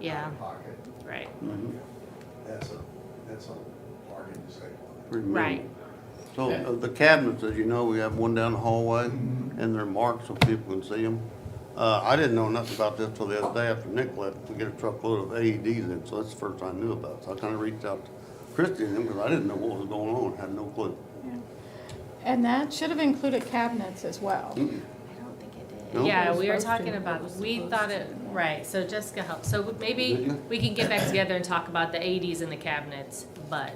Yeah. Pocket, right, Mhm. that's a, that's a bargain to save on Pretty minimal. right. So uh, the cabinets, as you know, we have one down the hallway, and they're marked so people can see them. Uh, I didn't know nothing about this till the other day after Nick left, we get a truckload of AEDs in, so that's the first I knew about. it. So I kinda reached out to Christie and them, because I didn't know what was going on, had no clue. And that should have included cabinets as well. Mm-hmm. I don't think it did. No? Yeah, we Supposed were to, talking it about, was we supposed thought to. it, right, so Jessica helped, so Did maybe you? we can get back together and talk about the eighties and the cabinets, but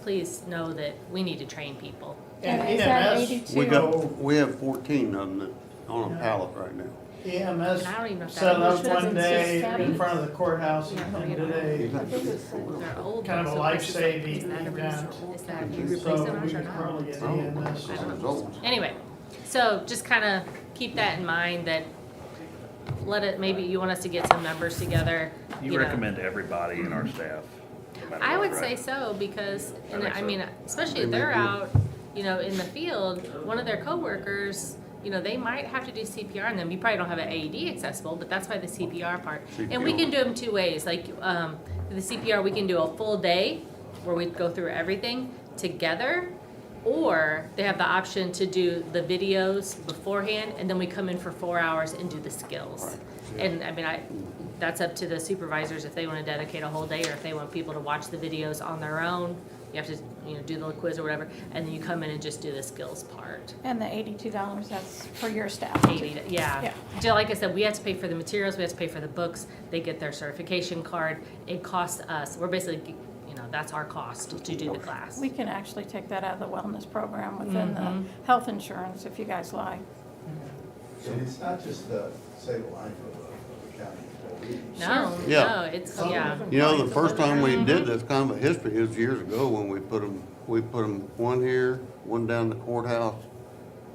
please know that we need to train people. And is that E EMS We eighty-two? got, we have fourteen of them that- on a pallet right now. EMS And I don't even know if that- set Which up ones one is just day in cabinets? front of the courthouse Yeah, and no, and you don't. did a, They're old. Kind of so a it's just like, life-saving is that a event. resource? Is that- you replace so them we or could not? probably get Oh, EMS. I was old. Anyway, so just kind of keep that in mind that let it, maybe you want us to get some numbers together. You know. recommend everybody in our staff? no matter I what, would say right? so because, I and think I so. mean, especially They if may they're be. out, you know, in the field, one of their coworkers, you know, they might have to do CPR on them. You probably don't have an AED accessible, but that's why the CPR part. And we CPR. can do them two ways, like, um, the CPR, we can do a full day where we go through everything together. Or they have the option to do the videos beforehand and then we come in for four hours and do the skills. And I mean, I, that's up to the supervisors if they want to dedicate a whole day or if they want people to watch the videos on their own. You have to, you know, do the quiz or whatever, and then you come in and just do the skills part. And the eighty-two dollars, that's for your staff. Eighty, yeah. Yeah. So like I said, we have to pay for the materials, we have to pay for the books, they get their certification card. It costs us, we're basically, you know, that's our cost to do the class. We can actually take that out of the wellness program within the Mm-hmm. health insurance if you guys like. it. And it's not just the save a life of a, of a county employee. No, Yeah. no, it's, yeah. You know, the first time we did this kind of a history is years ago when we put them, we put 'em one here, one down the courthouse,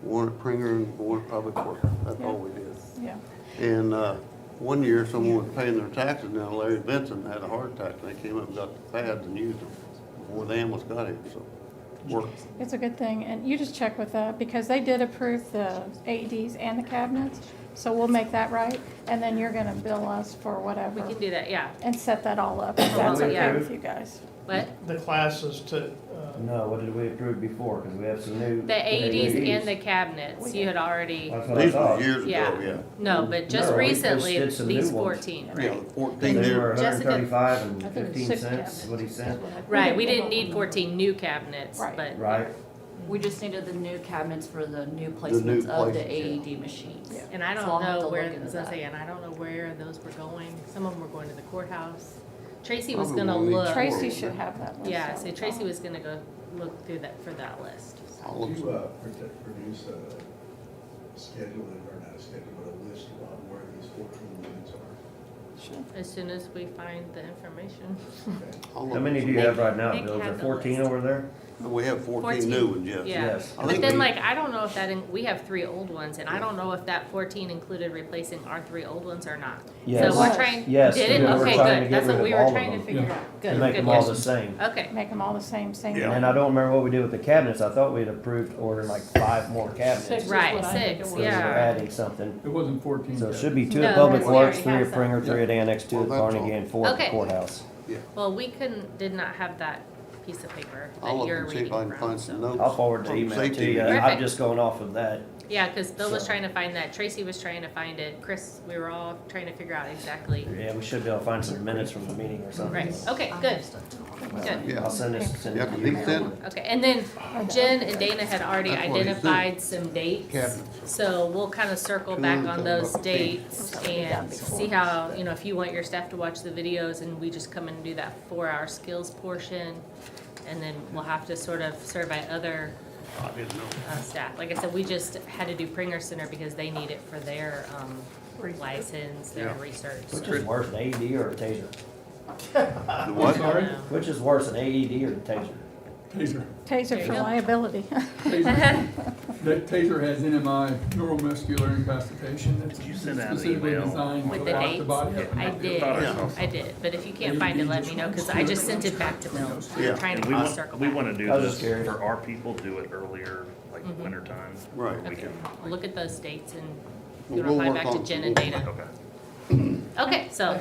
one at Pringer and one at Public Works. That's all we did. Yeah. And, uh, one year someone was paying their taxes now Larry Benson had a heart attack and they came up and got the pads and used them before the ambulance got here, so it worked. It's a good thing, and you just check with that, because they did approve the AEDs and the cabinets, so we'll make that right, and then you're gonna bill us for We whatever, can do that, yeah. and set that all up, if that's Well, yeah. okay with you guys. But The classes to, uh, No, what did we approve before? Because we have some new. E the eighties and the cabinets, you had already. That's what I These were thought. years ago, Yeah. yeah. No, but just No, we just recently, did some these new ones. fourteen, Yeah, right? the fourteen They were year, hundred and Jessica- thirty-five and I think it's fifteen six cents, what he said. Right, we didn't need fourteen new cabinets, Right. but, Right, We just needed the new cabinets for the new new placements of the places, AED machines. Yeah. and I So I'll don't have to know where, look into as I that. say, and I don't know where those were going. Some of them were going to the courthouse. Tracy was Probably gonna won't need look, Tracy- Tracy should have that one. yeah, so Tracy was gonna go look through that, for that list. I'll Do look you, uh, produ- produce a schedule, or not a schedule, but a list of where these fourteen units are? As soon as we find the information. Okay. I'll look how many at do you have right now, Nick Bill? Is there had the fourteen list. over there? some- We have fourteen 14. new ones, yes. Yeah, Yes. I but think then we- like, I don't know if that, in- we have three old ones, and I don't know if that fourteen included replacing our three old ones or not. Yes. So we're trying, Yes, did it? we were Okay, trying good, to get that's rid what of we were all of trying to them. figure out. To Good, make good, them all the yes. same. Okay, Make them all the same, same Yeah. one. And I don't remember what we did with the cabinets. I thought we'd approved ordering like five more cabinets. Six. right, what I think it six, So we were yeah. adding something. It wasn't fourteen. So it yet. should be two No, at Public because we Works, already three have at Pringer, some. three at Annex, two Well, at that's all. Carnegie, and four at the Okay. courthouse. Well, we couldn't, did not have that piece of paper I'll that look you're and see if I reading can find from, some so. notes. I'll forward the from email to safety. you. I'm Perfect. just going off of that. Yeah, cause Bill was So- trying to find that, Tracy was trying to find it, Chris, we were all trying to figure out exactly. Yeah, we should be able to find some minutes from the meeting or something. Right, okay, good, good. Yeah. I'll send this, send Yeah, it 'cause to he you. sent Okay, and then Jen and Dana had already That's what he said. identified some dates, Cabinets. so we'll kind of circle Two back and on some those up. dates and see how, you know, if you want your staff to watch the videos and we just come and do that four-hour skills portion, and then we'll have to sort of survey other I didn't know. uh, staff. Like I said, we just had to do Pringer Center because they need it for their um, license, their Yeah. research. so- Which is worse, an AED or a taser? The I'm what? Sorry? No. Which is worse, an AED or a taser? Taser. Taser for Yeah. liability. Taser. That taser has NMI, neuromuscular incapacitation. That's Did you send out an specifically email? designed to With the lock the dates, body up. and I not be did, thought I able to- saw I did, but if you can't find it, let me know, because I just sent it back to Bill. Yeah. We're trying And to kind of we want, circle we back. wanna do I was this just curious. for our people, do it earlier, like Mm-hmm. winter time. Right. We Okay, can, I'll look at those dates and We'll reply work back to on- Jen and Dana. okay. Okay, so